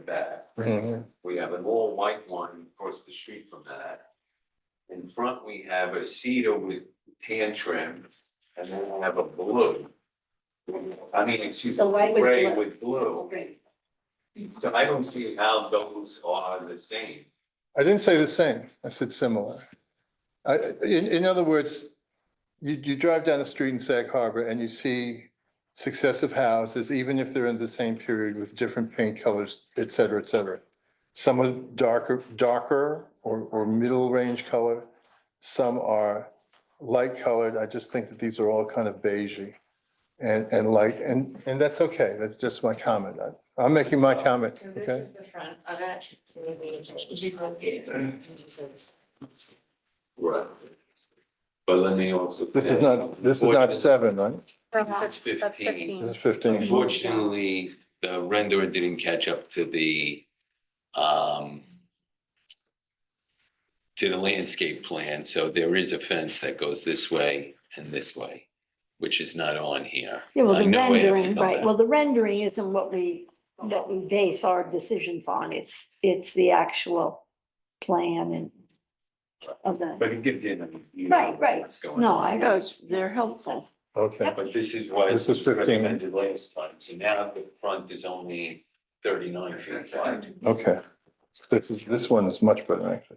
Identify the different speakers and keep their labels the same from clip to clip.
Speaker 1: back. We have an all white one across the street from that. In front, we have a cedar with tan trim, and then we have a blue. I mean, excuse me,
Speaker 2: The white with
Speaker 1: gray
Speaker 2: blue.
Speaker 1: with blue.
Speaker 2: Great.
Speaker 1: So I don't see how those are the same.
Speaker 3: I didn't say the same, I said similar. I, in, in other words, you, you drive down the street in Sag Harbor and you see successive houses, even if they're in the same period with different paint colors, et cetera, et cetera. Some are darker, darker or, or middle range color, some are light colored. I just think that these are all kind of beigey and, and light, and, and that's okay, that's just my comment. I- I'm making my comment,
Speaker 2: So this
Speaker 3: okay?
Speaker 2: is the front of it. Maybe it should be located. Jesus.
Speaker 1: Right. But let me also.
Speaker 3: This is not, this is not seven, right?
Speaker 1: This is fifteen.
Speaker 3: This is fifteen.
Speaker 1: Unfortunately, the renderer didn't catch up to the, um, to the landscape plan, so there is a fence that goes this way and this way, which is not on here.
Speaker 4: Yeah, well,
Speaker 1: I
Speaker 4: the
Speaker 1: know I have to
Speaker 4: rendering,
Speaker 1: come
Speaker 4: right,
Speaker 1: back.
Speaker 4: well, the rendering isn't what we, what we base our decisions on, it's, it's the actual plan and of the,
Speaker 1: But it gives you an idea
Speaker 4: Right, right.
Speaker 1: of what's going
Speaker 4: no,
Speaker 1: on.
Speaker 4: I know, it's- they're helpful.
Speaker 3: Okay.
Speaker 1: But this is why
Speaker 3: This
Speaker 1: this
Speaker 3: is
Speaker 1: was
Speaker 3: 15.
Speaker 1: recommended last time, so now the front is only thirty-nine feet wide.
Speaker 3: Okay. This is, this one is much better, actually.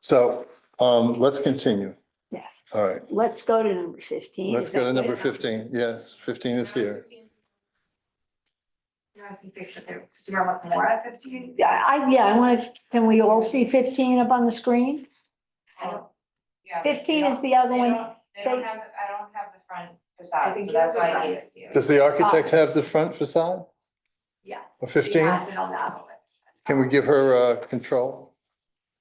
Speaker 3: So, um, let's continue.
Speaker 4: Yes,
Speaker 3: All right,
Speaker 4: let's go to number fifteen.
Speaker 3: let's
Speaker 4: Is
Speaker 3: go to
Speaker 4: that
Speaker 3: number
Speaker 4: right?
Speaker 3: fifteen. Yes, fifteen is here.
Speaker 2: No, I think they said they, do you want more at fifteen?
Speaker 4: Yeah, I, yeah, I want to, can we all see fifteen up on the screen?
Speaker 5: Yeah, but
Speaker 4: Fifteen
Speaker 5: they
Speaker 4: is the other
Speaker 5: don't-
Speaker 4: one,
Speaker 5: They don't, they don't
Speaker 4: they-
Speaker 5: have, I don't have the front
Speaker 2: I
Speaker 5: facade,
Speaker 2: think
Speaker 5: so that's
Speaker 2: you
Speaker 5: why
Speaker 2: have
Speaker 5: I
Speaker 2: the
Speaker 5: gave it to you.
Speaker 3: Does the architect have the front facade?
Speaker 2: Yes.
Speaker 3: A 15?
Speaker 2: She has it on the other one.
Speaker 3: Can we give her, uh, control?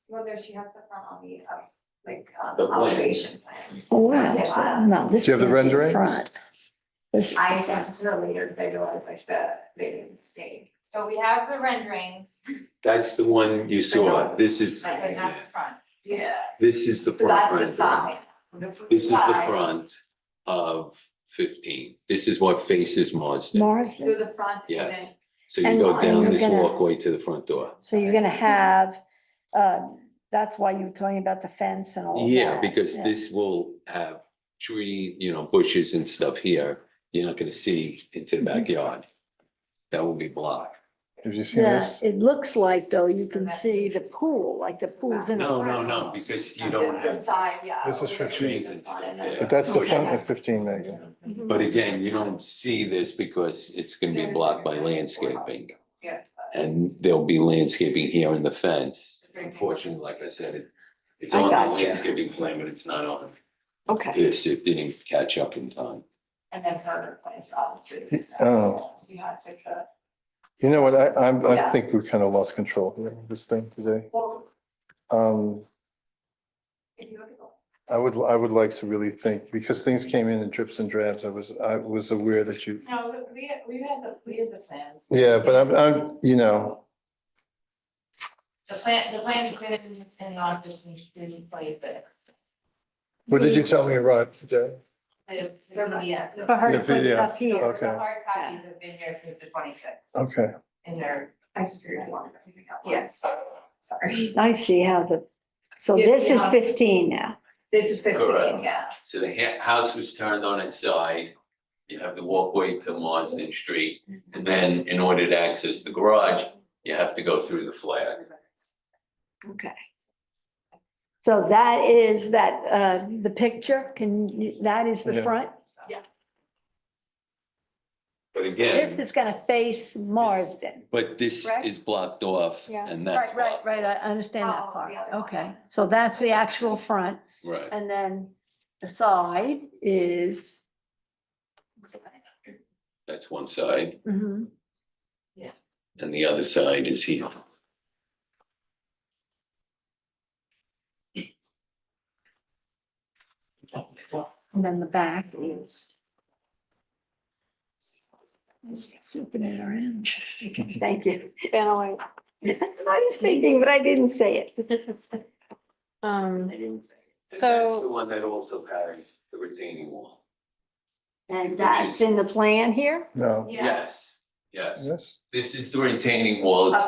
Speaker 2: Well, no, she has the front on the, uh, like, um,
Speaker 1: The plan.
Speaker 2: elevation plans.
Speaker 4: oh, wow,
Speaker 2: Yeah.
Speaker 4: so- no, this.
Speaker 3: Do you have the
Speaker 4: can't be
Speaker 3: renderings?
Speaker 4: front. This,
Speaker 2: I sent it to her later because I realized I should have made a mistake.
Speaker 5: So we have the renderings,
Speaker 1: That's the one you saw, this is,
Speaker 2: I
Speaker 5: but not the front.
Speaker 2: Yeah.
Speaker 1: this is the
Speaker 2: So
Speaker 1: front
Speaker 2: that's
Speaker 1: rendering.
Speaker 2: the side. This
Speaker 1: This is the
Speaker 2: side.
Speaker 1: front of fifteen. This is what faces Marsden.
Speaker 4: Mars,
Speaker 2: So the front
Speaker 1: Yes.
Speaker 2: isn't,
Speaker 1: So you
Speaker 4: And
Speaker 1: go
Speaker 4: Mar-
Speaker 1: down
Speaker 4: you're
Speaker 1: this
Speaker 4: gonna-
Speaker 1: walkway to the front door.
Speaker 4: so you're gonna have, uh, that's why you were talking about the fence and all of that.
Speaker 1: Yeah, because
Speaker 4: yeah.
Speaker 1: this will have tree, you know, bushes and stuff here. You're not gonna see into
Speaker 4: Mm-hmm.
Speaker 1: the backyard. That will be blocked.
Speaker 3: Have you seen
Speaker 4: Yeah,
Speaker 3: this?
Speaker 4: it looks like though, you can see the pool, like the pool's in the
Speaker 1: No, no,
Speaker 4: front.
Speaker 1: no, because you
Speaker 2: the,
Speaker 1: don't
Speaker 2: the
Speaker 1: have,
Speaker 2: side, yeah.
Speaker 3: This is
Speaker 2: with the
Speaker 3: 15.
Speaker 2: trees and Oh, stuff on it.
Speaker 1: Yeah.
Speaker 3: But that's the front of fifteen, Megan.
Speaker 4: Mhm.
Speaker 1: but again, you don't see this because it's gonna be blocked by landscaping.
Speaker 5: Yes, but
Speaker 1: And there'll be landscaping here in the fence.
Speaker 2: It's very simple.
Speaker 1: Unfortunately, like I said, it- it's
Speaker 4: I
Speaker 1: on the
Speaker 4: got you.
Speaker 1: landscaping plan, but it's not on
Speaker 4: Okay,
Speaker 1: this, it didn't catch up in time.
Speaker 2: And then her plans off to.
Speaker 3: Oh.
Speaker 2: She has like the,
Speaker 3: You know what? I, I'm, I
Speaker 2: Yeah.
Speaker 3: think we kind of lost control here with this thing today.
Speaker 2: well,
Speaker 3: Um,
Speaker 2: if you look at the
Speaker 3: I would, I would like to really think, because things came in in drips and drabs. I was, I was aware that you
Speaker 5: no, we, we had the, we had the plans.
Speaker 3: Yeah, but I'm, I'm, you know,
Speaker 5: The plan, the plan's been in the office and didn't play it.
Speaker 3: what did you tell me arrived today?
Speaker 5: The, the, yeah, the-
Speaker 4: but her,
Speaker 3: Yeah, but yeah,
Speaker 4: up here,
Speaker 3: okay.
Speaker 5: the hard copies have been here since the twenty-sixth
Speaker 3: Okay,
Speaker 5: in their,
Speaker 2: I just figured I wanted everything out.
Speaker 5: Yes.
Speaker 2: Sorry.
Speaker 4: I see how the, so
Speaker 2: Yes,
Speaker 4: this is
Speaker 2: yeah.
Speaker 4: fifteen now.
Speaker 2: This is fifteen,
Speaker 1: Correct.
Speaker 2: yeah.
Speaker 1: So the ha- house was turned on its side. You have the walkway to Marsden Street, and then in order to access the garage, you have to go through the flag.
Speaker 4: Okay. So that is that, uh, the picture, can, you- that is the
Speaker 3: Yeah.
Speaker 4: front?
Speaker 1: But again,
Speaker 4: This is gonna face Marsden.
Speaker 1: but this
Speaker 4: Correct?
Speaker 1: is blocked off
Speaker 4: Yeah.
Speaker 1: and that's
Speaker 4: Right, right,
Speaker 1: blocked,
Speaker 4: right, I understand
Speaker 2: Oh,
Speaker 4: that
Speaker 2: the
Speaker 4: part,
Speaker 2: other one.
Speaker 4: okay, so that's the actual front,
Speaker 1: right.
Speaker 4: and then the side is.
Speaker 1: That's one side,
Speaker 4: Mhm.
Speaker 1: and the other side is here.
Speaker 4: And then the back is. Flipping it around. Thank you. Been away. That's what I was thinking, but I didn't say it. Um,
Speaker 1: That's
Speaker 4: so,
Speaker 1: the one that also carries the retaining wall.
Speaker 4: and that's in the plan here?
Speaker 3: no,
Speaker 1: Yes, yes.
Speaker 3: yes?
Speaker 1: This is the retaining wall. It's